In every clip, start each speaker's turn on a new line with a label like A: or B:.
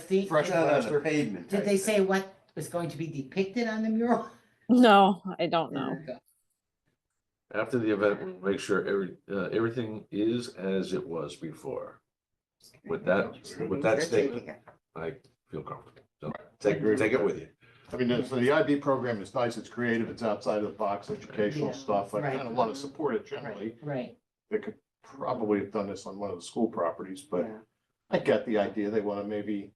A: feet
B: fresh
A: to-
C: No, no, no,
B: plaster.
C: pavement.
A: Did
C: type
A: they
C: thing.
A: say what was going to be depicted on the mural?
D: No, I don't know.
E: After the event, we'll make sure every, uh, everything is as it was before. With that, with that statement, I feel comfortable. So take, take it with you.
B: I mean, so the IB program is nice, it's creative, it's outside of the box, educational
A: Yeah,
B: stuff. I
A: right.
B: kind of want to support it generally.
A: Right, right,
B: They could probably have done this on one of the school properties, but
A: yeah.
B: I get the idea. They want to maybe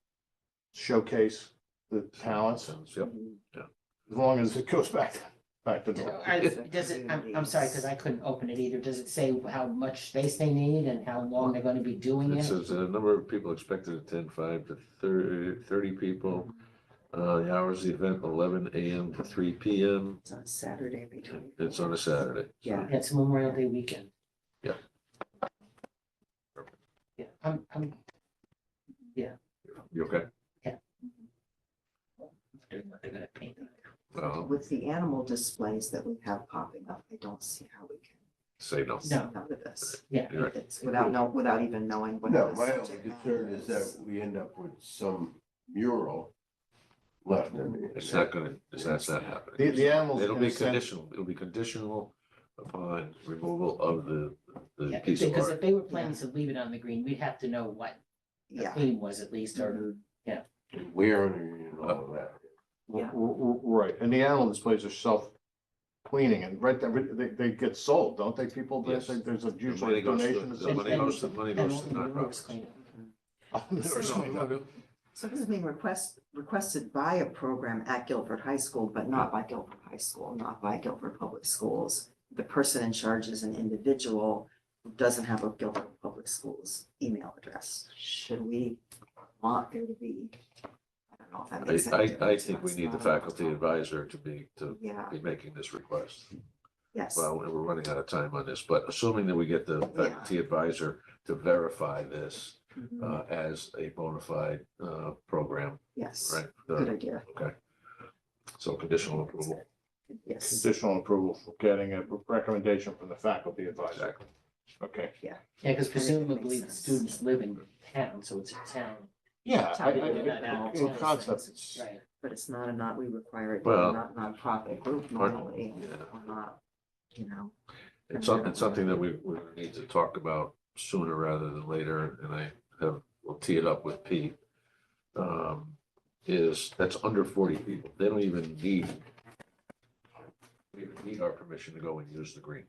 B: showcase the talents
E: Yep.
B: as long as it goes back, back to normal.
A: Are- Does it, I'm, I'm sorry, because I couldn't open it either. Does it say how much space they need and how long they're gonna be doing
E: It
A: it?
E: says the number of people expected to attend, five to thirty, thirty people. Uh, the hours of the event, eleven AM to three PM.
F: It's on Saturday between.
E: It's on a Saturday. so
F: Yeah.
A: It's Memorial Day weekend.
E: Yeah.
A: Yeah, I'm, I'm,
E: You okay?
A: I'm gonna paint that.
E: Well,
F: With the animal displays that we have popping up, I don't see how we can
E: say no.
A: No.
F: come out of this.
A: Yeah.
E: You're right.
F: It's without, no, without even knowing what.
C: No,
F: the
C: my only
F: subject matter
C: concern is that we end up with some mural left in
E: It's
C: it.
E: not gonna, it's that's not happening.
B: The, the animals.
E: It'll
B: in a
E: be
B: sense-
E: conditional, it'll be conditional upon removal of the, the
A: Yeah,
E: piece of
A: Because
E: art.
A: if they were planning to leave it on the green, we'd have to know what the
F: Yeah.
A: theme was at least, or,
C: And Where and all of that.
B: R-
F: Yeah.
B: r- r- Right, and the animal displays are self-cleaning and right, there, they, they get sold, don't they, people? They
E: Yes.
B: say There's a
E: The
B: usually
E: money
B: a
E: goes to-
B: donation. or
E: The money
B: something.
E: goes, the money
A: and all
E: goes to
A: the rules
E: nonprofits.
A: clean up.
B: I've never seen that.
F: So this is being request, requested by a program at Guilford High School, but not by Guilford High School, not by Guilford Public Schools. The person in charge is an individual who doesn't have a Guilford Public Schools email address. Should we want there to be? I don't know if that makes
E: I,
F: sense.
E: I, I think we need the faculty advisor to be, to
F: Yeah,
E: be making this request.
F: yes.
E: Well, we're running out of time on this, but assuming that we get the faculty advisor to verify this
F: Mhm.
E: uh, as a bona fide uh, program,
F: Yes,
E: right?
F: good
E: Uh,
F: idea.
E: Okay. So conditional approval.
F: Yes,
B: Conditional approval for getting a recommendation from the faculty advisor.
E: Exactly.
B: Okay,
A: Yeah, because
F: Kind of makes
A: presumably the
F: sense.
A: students live in town, so it's a town,
B: yeah, I- I-
F: Town
B: I-
F: meeting,
A: not
B: in
A: out.
B: concept, it's-
A: right?
F: but it's not a not, we require it,
E: Well-
F: not nonprofit group normally,
E: Yeah.
F: or not, you know.
E: It's something, it's something that we, we need to talk about sooner rather than later, and I have, we'll tee it up with Pete. Um, is, that's under forty people, they don't even need. they don't Need our permission to go and use the green.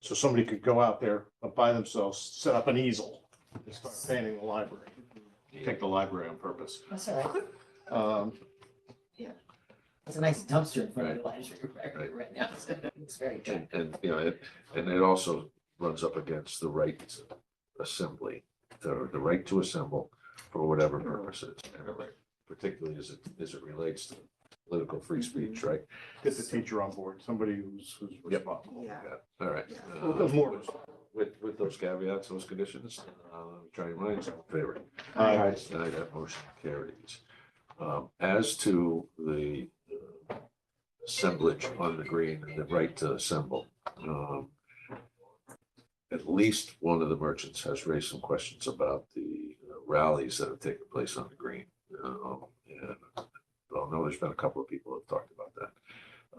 B: so somebody could go out there by themselves, set up an easel, and start painting the library. Pick the library on purpose.
A: That's all right.
B: Um,
A: It's a nice dumpster in front of
E: Right.
A: the library
E: Right.
A: right now. It's very good.
E: And, and, you know, it- and it also runs up against the right to assembly, the, the right to assemble for whatever purposes. and it like- Particularly as it, as it relates to political free speech, right?
B: Get the teacher on board, somebody who's, who's responsible.
F: Yeah.
E: All right.
B: Well,
E: Uh,
B: more-
E: With, with those caveats, those conditions, uh, try your minds in favor.
B: Aye.
E: Aye, that motion carries. Um, as to the uh, assemblage on the green and the right to assemble, um, at least one of the merchants has raised some questions about the uh, rallies that have taken place on the green. Um, and I know there's been a couple of people who have talked about that.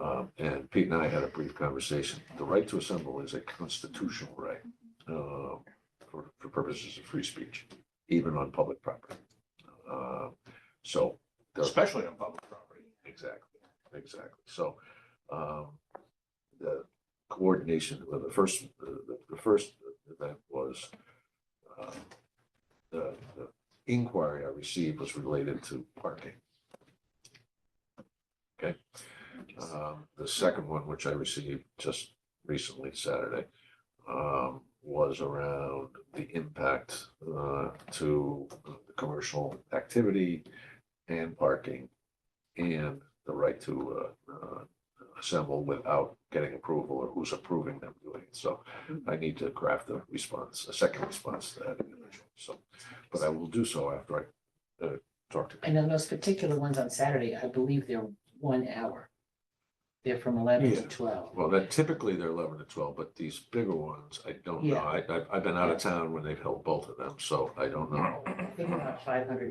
E: Um, and Pete and I had a brief conversation. The right to assemble is a constitutional right, uh, for, for purposes of free speech, even on public property. Uh, so,
B: especially on public property.
E: exactly, exactly. So, um, the coordination, well, the first, the, the first event was, uh, the, the inquiry I received was related to parking. Um, the second one, which I received just recently Saturday, um, was around the impact, uh, to the commercial activity and parking and the right to, uh, uh, assemble without getting approval or who's approving them doing it. So I need to craft a response, a second response to that individual. So, but I will do so after I, uh, talk to.
A: And on those particular ones on Saturday, I believe they're one hour. They're from eleven to
E: Yeah.
A: twelve.
E: Well, that typically they're eleven to twelve, but these bigger ones, I don't know.
A: Yeah.
E: I, I've, I've been out of town when they've held both of them, so I don't know.
A: I think about five hundred